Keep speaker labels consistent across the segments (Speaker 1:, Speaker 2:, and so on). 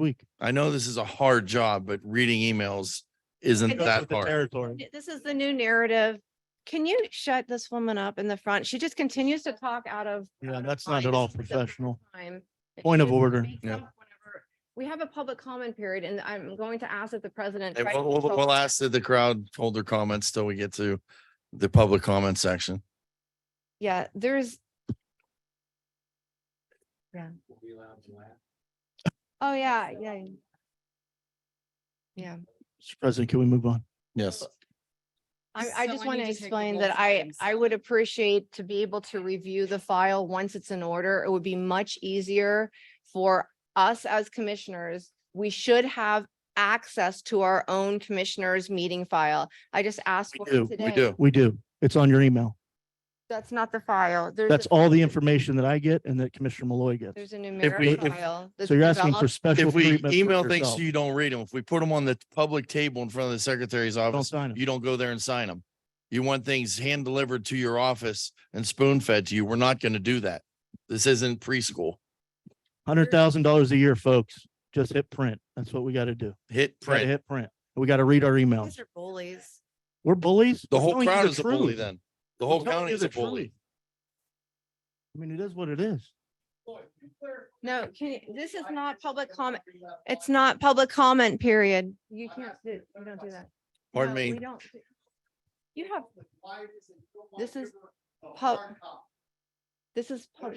Speaker 1: week.
Speaker 2: I know this is a hard job, but reading emails isn't
Speaker 1: It goes
Speaker 2: that
Speaker 1: with the
Speaker 2: hard.
Speaker 1: Territory.
Speaker 3: This is the new narrative. Can you shut this woman up in the front? She just continues to talk out of.
Speaker 1: Yeah,
Speaker 3: out of
Speaker 1: that's not
Speaker 3: line
Speaker 1: at all
Speaker 3: every single
Speaker 1: professional.
Speaker 3: time. It
Speaker 1: Point of
Speaker 3: just
Speaker 1: order.
Speaker 3: makes
Speaker 2: Yeah.
Speaker 3: up whenever- We have a public comment period and I'm going to ask if the president.
Speaker 2: And
Speaker 3: tried to
Speaker 2: We'll, we'll-
Speaker 3: control
Speaker 2: we'll
Speaker 3: that.
Speaker 2: ask that the crowd hold their comments till we get to the public comment section.
Speaker 3: Yeah, there's, oh, yeah, yeah. Yeah.
Speaker 1: Mr. President, can we move on?
Speaker 2: Yes.
Speaker 3: I,
Speaker 4: So
Speaker 3: I
Speaker 4: I
Speaker 3: just
Speaker 4: need
Speaker 3: want
Speaker 4: to
Speaker 3: to
Speaker 4: take the
Speaker 3: explain
Speaker 4: roll
Speaker 3: that
Speaker 4: for
Speaker 3: I,
Speaker 4: things.
Speaker 3: I would appreciate to be able to review the file once it's in order. It would be much easier for us as commissioners. We should have access to our own commissioners' meeting file. I just asked
Speaker 1: We
Speaker 3: for it
Speaker 1: do, we
Speaker 3: today.
Speaker 2: do.
Speaker 1: We do. It's on your email.
Speaker 3: That's not the file. There's
Speaker 1: That's
Speaker 3: a-
Speaker 1: all the information that I get and that Commissioner Malloy gets.
Speaker 3: There's a
Speaker 2: we-
Speaker 3: numeric
Speaker 2: if-
Speaker 3: file. that's
Speaker 1: So you're asking for
Speaker 3: developed.
Speaker 1: special
Speaker 2: If we
Speaker 1: treatment. for
Speaker 2: email things
Speaker 1: yourself.
Speaker 2: to you, don't read them. If we put them on the public table in front of the secretary's
Speaker 1: Don't
Speaker 2: office,
Speaker 1: sign it.
Speaker 2: you don't go there and sign them. You want things hand delivered to your office and spoon fed to you. We're not going to do that. This isn't preschool.
Speaker 1: Hundred thousand dollars a year, folks. Just hit print. That's what we got to do.
Speaker 2: Hit
Speaker 1: Gotta
Speaker 2: print.
Speaker 1: Hit print. We got to read our
Speaker 3: You
Speaker 1: emails.
Speaker 3: guys are bullies.
Speaker 1: We're bullies.
Speaker 2: The
Speaker 1: We're
Speaker 2: whole
Speaker 1: telling you
Speaker 2: crowd
Speaker 1: the
Speaker 2: is a bully
Speaker 1: truth.
Speaker 2: then. The
Speaker 1: We're
Speaker 2: whole
Speaker 1: telling
Speaker 2: county
Speaker 1: you
Speaker 2: is a
Speaker 1: the
Speaker 2: bully.
Speaker 1: truth. I mean, it is what it is.
Speaker 3: No, can, you- this is not public comment. It's not public comment period. You can't, do- you don't do that.
Speaker 2: Pardon
Speaker 3: No,
Speaker 2: me.
Speaker 3: we don't do- You have, This is this is, pub-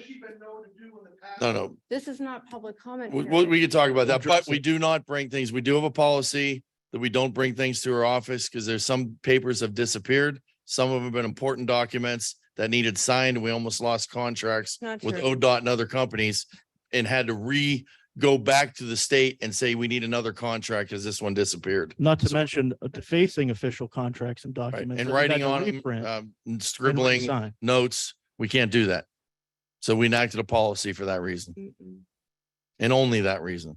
Speaker 2: No, no.
Speaker 3: this is not public comment.
Speaker 2: We, we,
Speaker 3: period.
Speaker 2: we could talk about that,
Speaker 1: Address
Speaker 2: but we
Speaker 1: it.
Speaker 2: do not bring things. We do have a policy that we don't bring things to our office because there's some papers have disappeared. Some of them have been important documents that needed signed. We almost lost contracts
Speaker 3: Not
Speaker 2: with
Speaker 3: true.
Speaker 2: ODOT and other companies and had to re, go back to the state and say, we need another contract because this one disappeared.
Speaker 1: Not to mention uh, defacing official contracts and
Speaker 2: Right?
Speaker 1: documents.
Speaker 2: And
Speaker 1: that we had
Speaker 2: writing
Speaker 1: to
Speaker 2: on, 'em,
Speaker 1: reprint and
Speaker 2: um, and scribbling
Speaker 1: resign.
Speaker 2: notes, we can't do that. So we enacted a policy for that reason
Speaker 3: Mm-mm.
Speaker 2: and only that reason.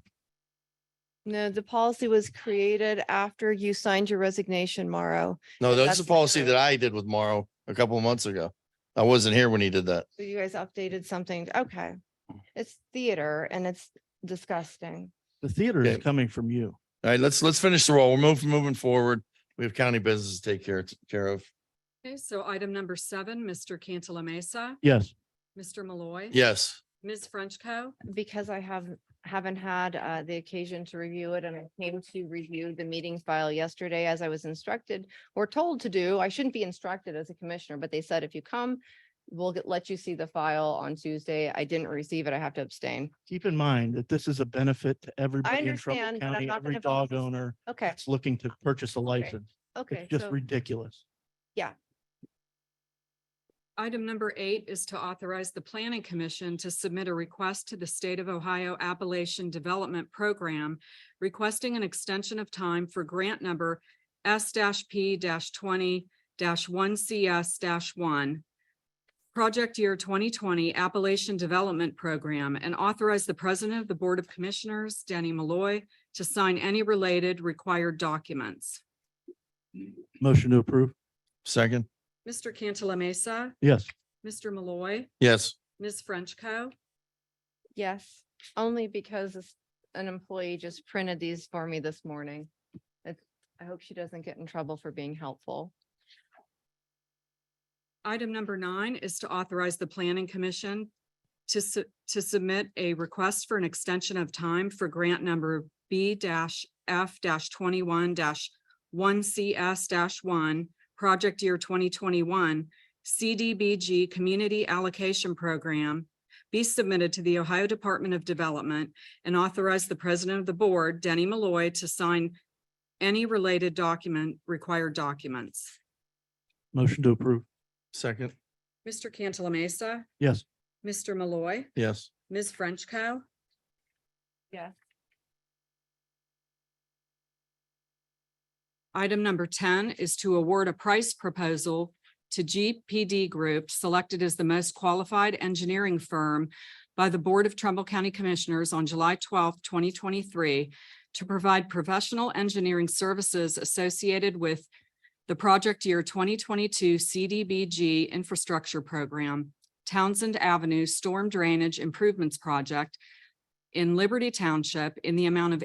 Speaker 3: No, the policy was created after you signed your resignation, Morrow.
Speaker 2: No, that's
Speaker 3: That's
Speaker 2: the
Speaker 3: not
Speaker 2: policy
Speaker 3: true.
Speaker 2: that I did with Morrow a couple of months ago. I wasn't here when he did that.
Speaker 3: So you guys updated something. Okay.
Speaker 2: Oh.
Speaker 3: It's theater and it's disgusting.
Speaker 1: The theater is
Speaker 2: Okay.
Speaker 1: coming from you.
Speaker 2: All right, let's, let's finish the roll. We're moving, moving forward. We have county business to take care, care of.
Speaker 4: Okay, so item number seven, Mr. Cantala Mesa,
Speaker 1: Yes.
Speaker 4: Mr. Malloy.
Speaker 2: Yes,
Speaker 4: Ms. Frenchco.
Speaker 3: Because I have, haven't had uh, the occasion to review it and I came to review the meeting file yesterday as I was instructed or told to do. I shouldn't be instructed as a commissioner, but they said if you come, we'll get- let you see the file on Tuesday. I didn't receive it. I have to abstain.
Speaker 1: Keep in mind that this is a benefit to everybody in Trumbull
Speaker 3: understand, but I'm
Speaker 1: County,
Speaker 3: not
Speaker 1: every
Speaker 3: gonna vote
Speaker 1: dog
Speaker 3: this-
Speaker 1: owner
Speaker 3: Okay,
Speaker 1: that's looking to purchase a license.
Speaker 3: okay.
Speaker 1: It's just
Speaker 3: so-
Speaker 1: ridiculous.
Speaker 4: Item number eight is to authorize the planning commission to submit a request to the State of Ohio Appalachian Development Program requesting an extension of time for grant number S P twenty one CS one. Project year twenty twenty Appalachian Development Program and authorize the president of the Board of Commissioners, Denny Malloy, to sign any related required documents.
Speaker 1: Motion to approve.
Speaker 2: second.
Speaker 4: Mr. Cantala Mesa,
Speaker 1: Yes.
Speaker 4: Mr. Malloy,
Speaker 2: Yes,
Speaker 4: Ms. Frenchco.
Speaker 3: Yes, only because this- an employee just printed these for me this morning. It's- I hope she doesn't get in trouble for being helpful.
Speaker 4: Item number nine is to authorize the planning commission to su- to submit a request for an extension of time for grant number B F twenty-one one CS one, project year twenty twenty-one, CDBG Community Allocation Program be submitted to the Ohio Department of Development and authorize the president of the board, Denny Malloy, to sign any related document, required documents.
Speaker 1: Motion to approve.
Speaker 2: second.
Speaker 4: Mr. Cantala Mesa.
Speaker 1: Yes.
Speaker 4: Mr. Malloy,
Speaker 2: Yes.
Speaker 4: Ms. Frenchco.
Speaker 3: Yes.
Speaker 4: Item number ten is to award a price proposal to GPD Group, selected as the most qualified engineering firm by the Board of Trumbull County Commissioners on July twelfth, twenty twenty-three, to provide professional engineering services associated with the project year twenty twenty-two CDBG Infrastructure Program, Townsend Avenue Storm Drainage Improvements Project in Liberty Township in the amount of